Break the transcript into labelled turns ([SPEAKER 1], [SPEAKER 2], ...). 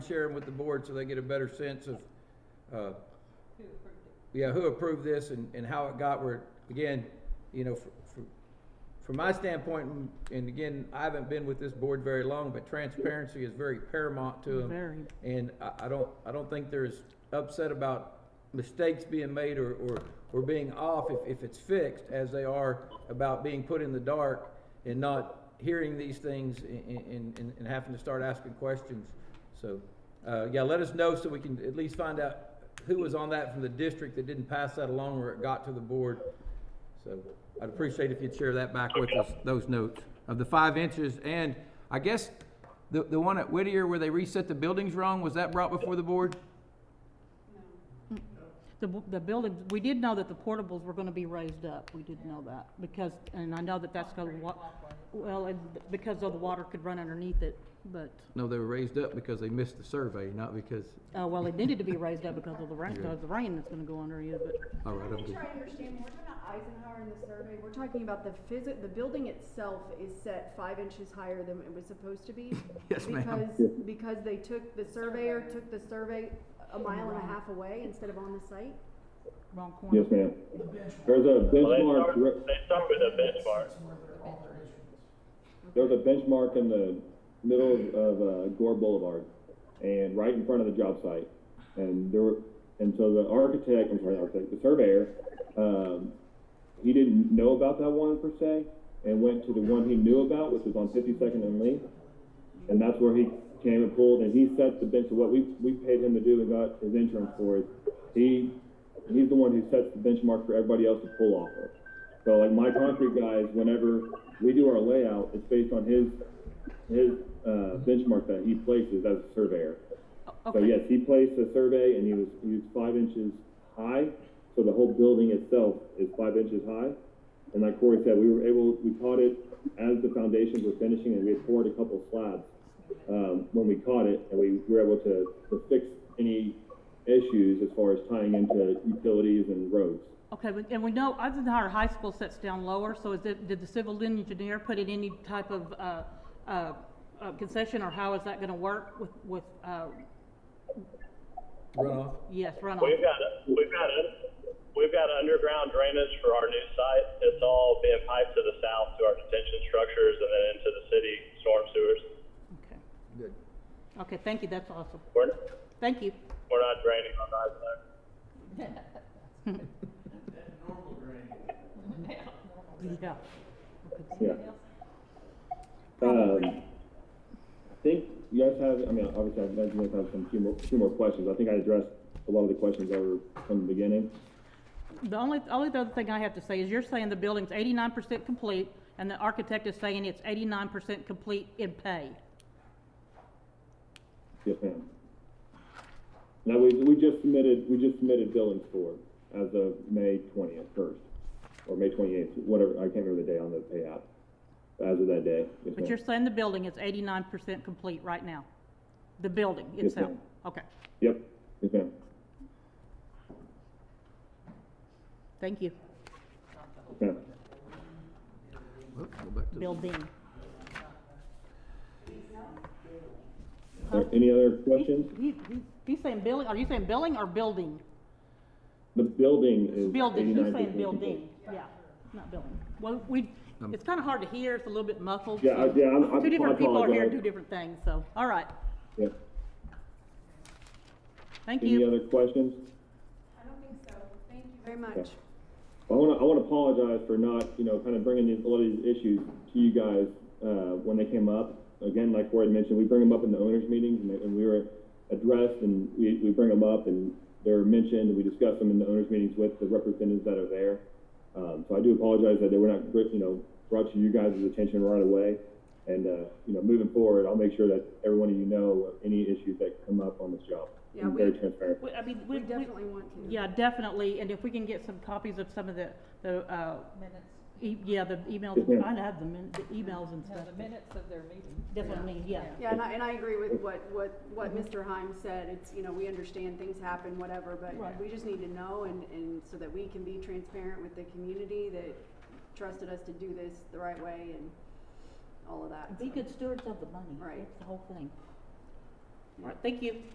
[SPEAKER 1] share them with the board so they get a better sense of, uh,
[SPEAKER 2] who approved it.
[SPEAKER 1] yeah, who approved this and, and how it got where, it- again, you know, from, from my standpoint, and- and again, I haven't been with this board very long, but transparency is very paramount to them.
[SPEAKER 3] Very.
[SPEAKER 1] And I, I don't, I don't think there's upset about mistakes being made or, or, or being off if, if it's fixed as they are about being put in the dark and not hearing these things and, and, and having to start asking questions. So, uh, yeah, let us know so we can at least find out who was on that from the district that didn't pass that along or it got to the board. So I'd appreciate if you'd share that back with us, those notes of the five inches. And I guess the, the one at Whittier where they reset the buildings wrong, was that brought before the board?
[SPEAKER 2] No,
[SPEAKER 3] The, bu- the building, we did know that the portables were gonna be raised up, we did know that, because, and I know that that's gonna wa- well, and because of the water could run underneath it, but,
[SPEAKER 1] No, they were raised up because they missed the survey, not because,
[SPEAKER 3] uh, well, it needed to be raised up because of the rain, because of the rain that's gonna go under you, but,
[SPEAKER 1] all right,
[SPEAKER 4] Let
[SPEAKER 1] I'm
[SPEAKER 4] me
[SPEAKER 1] good.
[SPEAKER 4] try to understand, when we're talking about Eisenhower in the survey, we're talking about the physi- the building itself is set five inches higher than it was supposed to be?
[SPEAKER 1] Yes, ma'am.
[SPEAKER 4] Because, because they took, the surveyor took the survey a mile and a half away instead of on the site?
[SPEAKER 3] wrong corner.
[SPEAKER 5] Yes, ma'am. There's a
[SPEAKER 6] Well, they start,
[SPEAKER 5] benchmark, re-
[SPEAKER 6] they start with a benchmark.
[SPEAKER 5] there's a benchmark in the middle of, of uh, Gore Boulevard and right in front of the job site. And there were, and so the architect, I'm sorry, the architect, the surveyor, um, he didn't know about that one per se and went to the one he knew about, which was on 52nd and Lee. And that's where he came and pulled and he set the bench of what we, we paid him to do and got his insurance for it. He, he's the one who sets the benchmark for everybody else to pull off of. So like my concrete guys, whenever we do our layout, it's based on his, his, uh, benchmark that he places as a surveyor. So
[SPEAKER 3] Okay.
[SPEAKER 5] yes, he placed a survey and he was, he was five inches high, so the whole building itself is five inches high. And like Corey said, we were able, we caught it as the foundations were finishing and we had poured a couple slabs, um, when we caught it and we were able to, to fix any issues as far as tying into utilities and roads.
[SPEAKER 3] Okay, but- and we know Eisenhower High School sets down lower, so is it, did the civil engineer put in any type of, uh, uh, uh, concession, or how is that gonna work with, with, uh,
[SPEAKER 1] Runoff?
[SPEAKER 3] yes, runoff?
[SPEAKER 6] We've got, we've got, un- we've got underground drainage for our new site. It's all being piped to the south to our detention structures and then into the city storm sewers.
[SPEAKER 3] Okay.
[SPEAKER 1] Good.
[SPEAKER 3] Okay, thank you, that's awesome,
[SPEAKER 6] We're,
[SPEAKER 3] thank you.
[SPEAKER 6] we're not draining on that side.
[SPEAKER 3] Yeah.
[SPEAKER 5] Yeah. Um, I think you guys have, I mean, obviously, I imagine you guys have some few more, few more questions. I think I addressed a lot of the questions that were from the beginning.
[SPEAKER 3] The only, only other thing I have to say is you're saying the building's eighty-nine percent complete, and the architect is saying it's eighty-nine percent complete in pay.
[SPEAKER 5] Yes, ma'am. Now, we, we just submitted, we just submitted billings for it as of May twentieth, first, or May twenty-eighth, whatever, I can't remember the day on the payout. As of that day, yes,
[SPEAKER 3] But you're
[SPEAKER 5] ma'am.
[SPEAKER 3] saying the building is eighty-nine percent complete right now? The building
[SPEAKER 5] Yes,
[SPEAKER 3] itself?
[SPEAKER 5] ma'am.
[SPEAKER 3] Okay,
[SPEAKER 5] Yep, yes, ma'am.
[SPEAKER 3] thank you.
[SPEAKER 5] Yes, ma'am.
[SPEAKER 1] Go back to the-
[SPEAKER 3] Building.
[SPEAKER 5] Are there Any other questions?
[SPEAKER 3] He- he- he- He's saying building, are you saying building or building?
[SPEAKER 5] The building is
[SPEAKER 3] Building, he's
[SPEAKER 5] eighty-nine
[SPEAKER 3] saying building, yeah, not building. Well, we, it's kinda hard to hear, it's a little bit muffled.
[SPEAKER 5] Um, Yeah, I-
[SPEAKER 3] so-
[SPEAKER 5] yeah, I'm- I'm-
[SPEAKER 3] Two
[SPEAKER 5] I
[SPEAKER 3] different people are hearing
[SPEAKER 5] apologize.
[SPEAKER 3] two different things, so, all right,
[SPEAKER 5] Yep.
[SPEAKER 3] thank you.
[SPEAKER 5] Any other questions?
[SPEAKER 2] I don't think so. Thank you
[SPEAKER 4] Very
[SPEAKER 2] very much.
[SPEAKER 4] much.
[SPEAKER 5] I want to I want to apologize for not you know kind of bringing these, a lot of these issues to you guys uh, when they came up. Again, like Corey had mentioned, we bring them up in the owners' meetings, and, they- and we were addressed, and we, we bring them up, and they're mentioned, and we discuss them in the owners' meetings with the representatives that are there. Um, so I do apologize that they were not br- you know brought to you guys' attention right away, and uh, you know moving forward, I'll make sure that every one of you know of any issues that come up on this job.
[SPEAKER 4] Yeah,
[SPEAKER 5] I'm very
[SPEAKER 4] we-
[SPEAKER 5] transparent.
[SPEAKER 3] We- I mean,
[SPEAKER 4] We
[SPEAKER 3] we, we,
[SPEAKER 4] definitely want to.
[SPEAKER 3] yeah, definitely, and if we can get some copies of some of the, the, uh,
[SPEAKER 2] Minutes,
[SPEAKER 3] e- yeah, the emails,
[SPEAKER 5] Yes, ma'am.
[SPEAKER 3] I have the min, the emails and
[SPEAKER 2] no,
[SPEAKER 3] stuff.
[SPEAKER 2] the minutes of their meeting.
[SPEAKER 3] Definitely, yeah.
[SPEAKER 4] Yeah, and I, and I agree with what, what, what Mr. Heim said, it's, you know, we understand things happen, whatever, but
[SPEAKER 3] Right.
[SPEAKER 4] we just need to know and, and so that we can be transparent with the community that trusted us to do this the right way and all of that.
[SPEAKER 3] Be good stewards of the money,
[SPEAKER 4] Right.
[SPEAKER 3] that's the whole thing. All right, thank you.